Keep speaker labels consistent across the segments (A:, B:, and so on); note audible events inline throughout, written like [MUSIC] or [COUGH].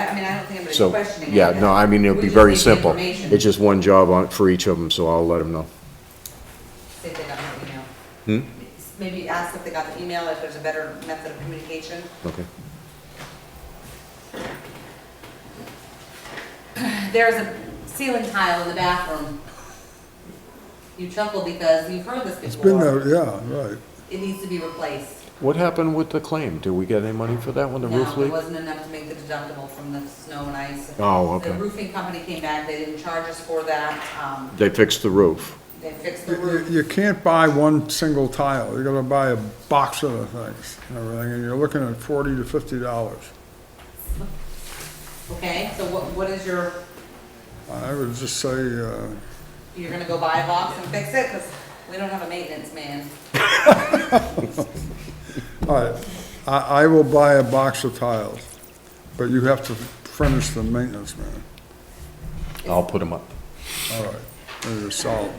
A: I don't think anybody's
B: So,
A: questioning it.
B: yeah, no, I mean, it'll
A: We
B: be
A: just
B: very
A: need the
B: simple.
A: information.
B: It's just one job on, for each of them, so I'll let them know.
A: See if they got my
B: Hmm?
A: email. um, Maybe ask if they got the email, if there's a better method of communication. [CLEARS THROAT]
B: Okay.
A: There's a ceiling tile in the bathroom. You chuckle because you've heard this before.
C: It's been there, yeah, right.
A: It needs to be replaced.
B: What happened with the claim? Did we get any money for that one, the roof
A: No, it
B: leak?
A: wasn't enough to make the deductible from the snow and ice.
B: Oh,
A: The
B: okay.
A: roofing company came back, they didn't charge us for that, um,
B: They fixed the roof.
A: they fixed the
C: You- You,
A: roof.
C: you can't buy one single tile, you gotta buy a box of the things and everything, and you're looking at forty to fifty dollars.
A: Okay, so what, what is your,
C: I would just say, uh,
A: you're gonna go buy a box and fix it? Cause we don't have a maintenance man.
C: all right, I, I will buy a box of tiles, but you have to furnish the maintenance man.
B: I'll put them up.
C: All right, then you're solid.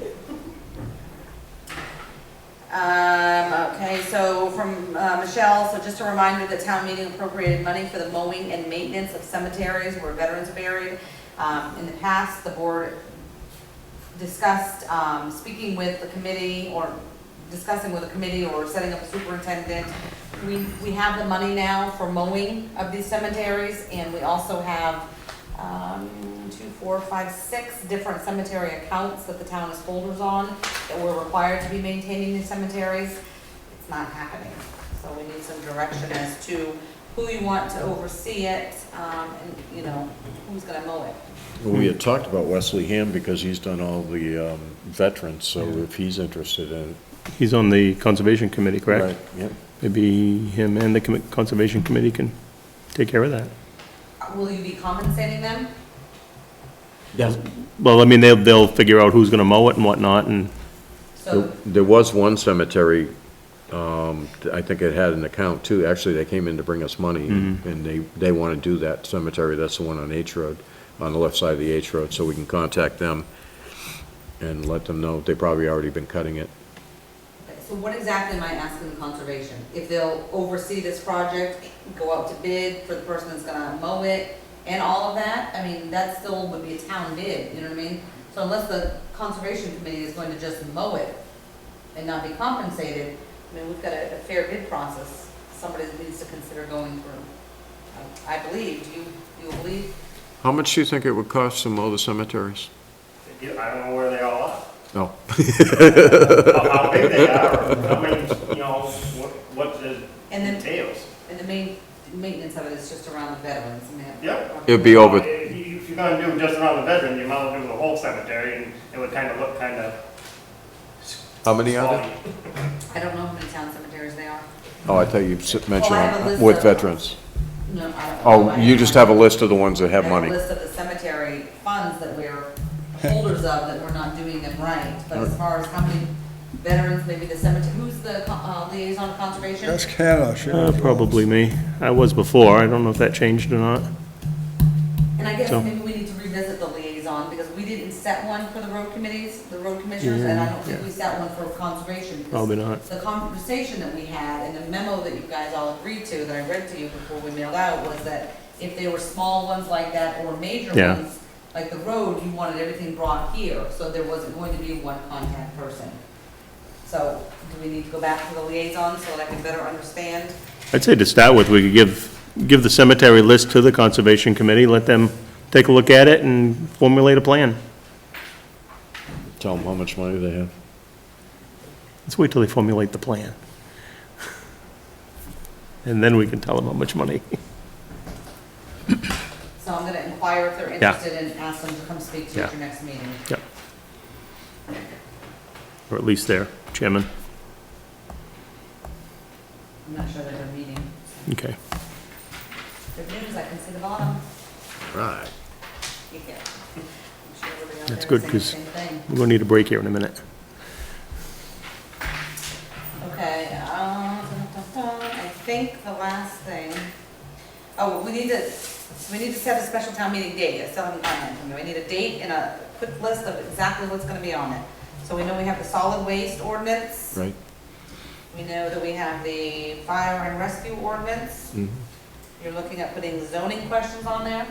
A: Um, okay, so from uh, Michelle, so just a reminder that town meeting appropriated money for the mowing and maintenance of cemeteries where veterans are buried. Um, in the past, the board discussed, um, speaking with the committee or discussing with the committee or setting up a superintendent. We, we have the money now for mowing of these cemeteries and we also have, um, two, four, five, six different cemetery accounts that the town is holders on that we're required to be maintaining these cemeteries. It's not happening. So we need some direction as to who you want to oversee it, um, and, you know, who's gonna mow it.
B: We had talked about Wesley Ham because he's done all the um, veterans, so if he's interested in it.
D: He's on the Conservation Committee,
B: Right,
D: correct?
B: Yeah.
D: Maybe him and the commi- Conservation Committee can take care of that.
A: Will you be compensating them?
D: Well, I mean, they'll, they'll figure out who's gonna mow it and whatnot, and,
A: So,
B: There was one cemetery, um, I think it had an account too, actually, they came in to bring us money, and they, they want to do that cemetery, that's the one on H Road, on the left side of the H Road, so we can contact them and let them know, they probably already been cutting it.
A: so what exactly am I asking the conservation? If they'll oversee this project, go out to bid for the person that's gonna mow it and all of that? I mean, that still would be a town bid, you know what I mean? So unless the conservation committee is going to just mow it and not be compensated, I mean, we've got a, a fair bid process somebody needs to consider going through. I I believe, do you, you believe?
B: How much do you think it would cost to mow the cemeteries?
E: Yeah, I don't know where they all are,
B: No,
E: how how big they are, or how many, you know, what, what the
A: And then-
E: details.
A: And the main, maintenance of it is just around the veterans, I mean.
E: Yep.
B: It'd be over-
E: If you- if you're gonna do just around the veteran, you might as well do the whole cemetery, and it would kind of look kind of.
B: how many are there?
E: spotty.
A: I don't know how many town cemeteries they are.
B: Oh, I thought you s- mentioned
A: Well, I have a
B: uh,
A: list
B: with
A: of-
B: veterans.
A: No, I don't.
B: Oh, you just have a list of the ones that
A: I
B: have money.
A: a list of the cemetery funds that we're holders of, that we're not doing them right, but as far as how many veterans, maybe the cemetery, who's the co- uh, liaison conservation?
C: Ask Hannah, she
D: uh,
C: knows.
D: probably me. I was before, I don't know if that changed or not.
A: And I guess
D: So-
A: maybe we need to revisit the liaison, because we didn't set one for the road committees, the road commissioners, and I don't think we set one for conservation. because
D: Probably not.
A: The conversation that we had, and the memo that you guys all agreed to, that I read to you before we mailed out, was that if they were small ones like that, or major
D: Yeah.
A: ones, like the road, you wanted everything brought here, so there wasn't going to be one contact person. So, do we need to go back to the liaison, so that I can better understand?
D: I'd say to start with, we could give, give the cemetery list to the Conservation Committee, let them take a look at it and formulate a plan.
B: Tell them how much money they have.
D: Let's wait till they formulate the plan. [LAUGHS] And then we can tell them how much money. [LAUGHS]
A: So I'm gonna inquire if they're
D: Yeah.
A: interested, and ask them to come speak to you at your next meeting.
D: Yeah. Or at least their chairman.
A: I'm not sure that they're meeting.
D: Okay.
A: Good news, I can see the bottom.
B: Right.
A: You can. I'm sure everybody out
D: That's
A: there is
D: good, 'cause-
A: saying the same thing.
D: We're gonna need a break here in a minute.
A: Okay, uh, dun, dun, dun. I think the last thing, oh, we need to, we need to set a special town meeting date. I still haven't gotten that from you. I need a date and a quick list of exactly what's gonna be on it. So we know we have the solid waste ordinance.
B: Right.
A: We know that we have the fire and rescue ordinance.
D: Mm-hmm.
A: You're looking at putting zoning questions on there?